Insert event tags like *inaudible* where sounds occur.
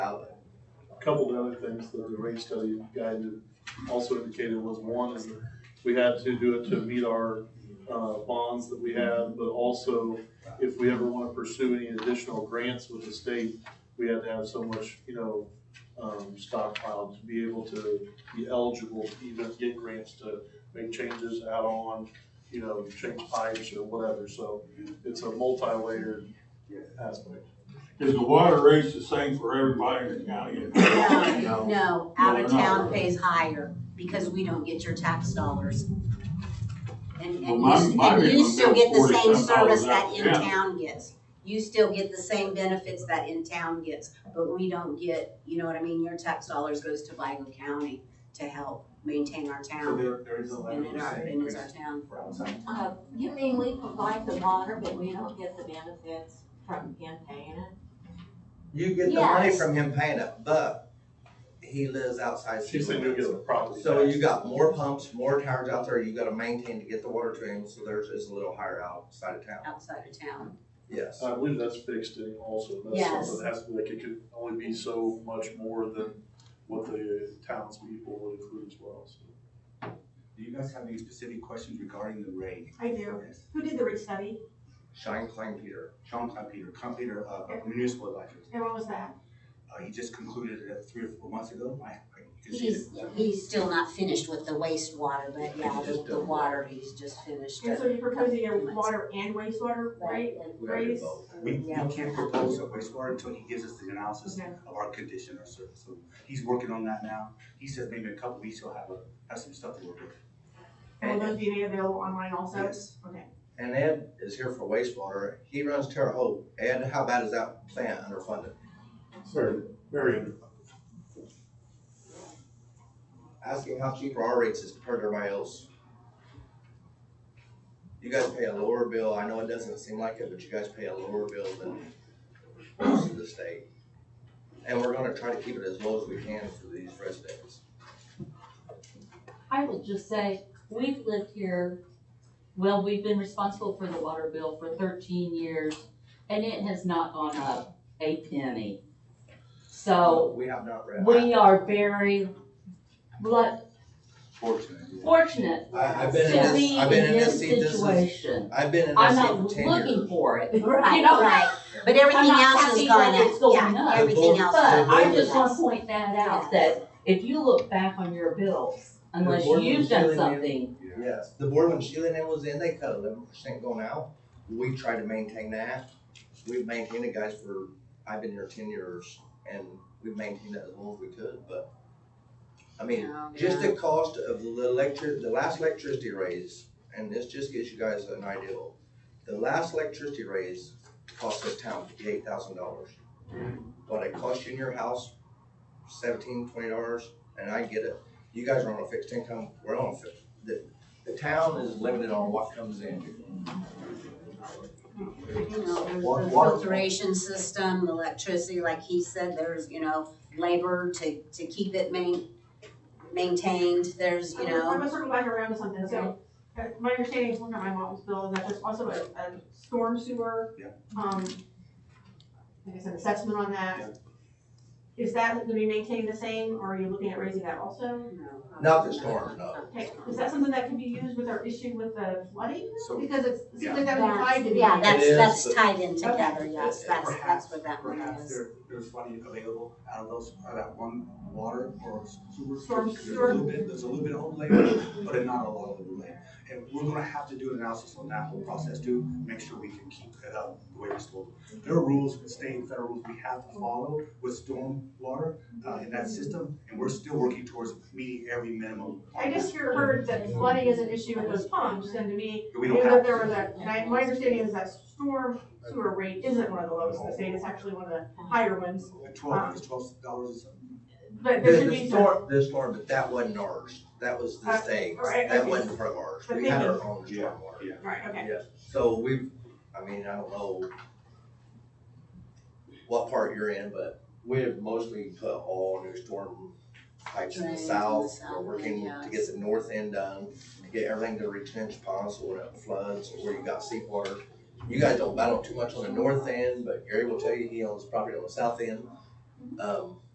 couple of other things that the rate study guide also indicated was one is that we had to do it to meet our, uh, bonds that we had, but also if we ever want to pursue any additional grants with the state, we had to have so much, you know, um, stockpiled to be able to be eligible to even get grants to make changes, add on, you know, change pipes or whatever, so it's a multi-layered aspect. Is the water rates the same for everybody in the county? No, no, out of No, no. town pays higher because we don't get your tax dollars. And, Well, and my- you, my and you minimum still get the bill's $47 same out of service that in town. town gets. You still get the same benefits that in town gets, but we don't get, you know what I mean, your tax dollars goes to Vigo County to help maintain our So town. there, there is a And level it of our, and it's our town. for outside. Uh, You mean we provide the water, but we don't get the benefits from him paying it? You get the money Yes. from him paying it, but he lives outside She city said you'll get limits. a property So tax. you got more pumps, more towers out there, you gotta maintain to get the water to him, so theirs is a little higher outside of town, outside of town. yes. I believe that's fixed in also, that's Yes. something that has to, be- like, it could only be so much more than what the townspeople would include as well, so. Do you guys have any specific questions regarding the rate? I do. Yes. Who did the rate study Shine Klein Peter, Sean Competer, Competer of Uh, Municipal Electric. and what was that? Uh, he just concluded it three or four months ago. I, I can see it. He's, he's still not finished with the wastewater, but yeah, He's just the, the done. water, he's just finished. And so it. you're proposing a water and wastewater rate we gotta do raise? both. We, we Yeah. can't propose a wastewater until he gives us the analysis Okay. of our condition or service. So he's working on that now. He says maybe in a couple weeks he'll have a, have some stuff to work with. Will those be made available online also? Yes. Okay. And Ed is here for wastewater, he runs Terre Haute, Ed, how bad is that plant underfunded? Very, very underfunded. Ask him how cheap our rates is compared to everybody else. You guys pay a lower bill, I know it doesn't seem like it, but you guys pay a lower bill than most of the state. And we're gonna try to keep it as low as we can for these residents. I would just say, we've lived here, well, we've been responsible for the water bill for thirteen years, and it has not gone up a penny. So, We have not read. we are very lu- Fortunately. fortunate I, I've to been in be this, in I've been in this this seat, this is, situation. I've been in I'm this seat not for ten years. looking for *laughs* it, you Right, know? Right, but everything I'm not else happy is gone that it's up, going yeah, up. everything The else. board- is But I going just up. wanna point that out, that if you look back on your bills, unless Your board was you've done telling you- something, Yes, the board when Sheila and I was in, they cut eleven percent going out. We tried to maintain that. We've maintained it, guys, for, I've been here ten years and we've maintained it as long as we could, but I mean, No, just no. the cost of the electric, the last electricity raise, and this just gives you guys an idea. The last electricity raise cost this town fifty-eight thousand dollars. What it cost you in your house, seventeen, twenty dollars, and I get it. You guys are on a fixed income, we're on a fixed the town is limited on what comes in. You know, there's Water- the water- filtration system, the electricity, like he said, there's, you know, labor to, to keep it main, maintained, there's, you I'm know. gonna circle back around to something, so, uh, my understanding is looking at my mom's bill, is that there's also a, a storm sewer. Yeah. Um, I guess an assessment on that. Is that gonna be maintained the same, or are you looking at raising that also? Not the storm, no. Okay, is that something that can be used with our issue with the flooding? So Because it's, it seems like that would be tied That's- to the. Yeah, that's, is, that's but- tied in together, yes, It- it that's, perhaps- that's what that one Perhaps is. there, there's funding available out of those, out of that one water or sewer. Storm There's a sewer. little bit, there's a little bit of overlay, but not a lot of overlay. And we're gonna have to do an analysis on that whole process to make sure we can keep it up the way it's supposed. to. There are rules, state and federal rules we have to follow with storm water, uh, in that system, and we're still working towards meeting every minimum. on I just hear- heard that flooding is an issue with those pumps, and to me, that. We I don't knew have. that there was a, and I, my understanding is that storm sewer rate isn't one of the lowest in the state, it's actually one of the higher ones, Twelve, it's twelve dollars is but there The, should the be some. storm, the storm, but that wasn't ours. That was the Uh, state's. right, That okay. wasn't part of ours. But We had our thinking- own Yeah, stormwater. yeah. Right, okay. Yes, so we, I mean, I don't know what part you're in, but we have mostly put all new storm pipes in the Drains in the south. south, We're working to yes. get the north end done, to get everything to retention ponds so when it floods, or where you got seep water. You guys don't battle too much on the north end, but Gary will tell you he owns property on the south end. Um,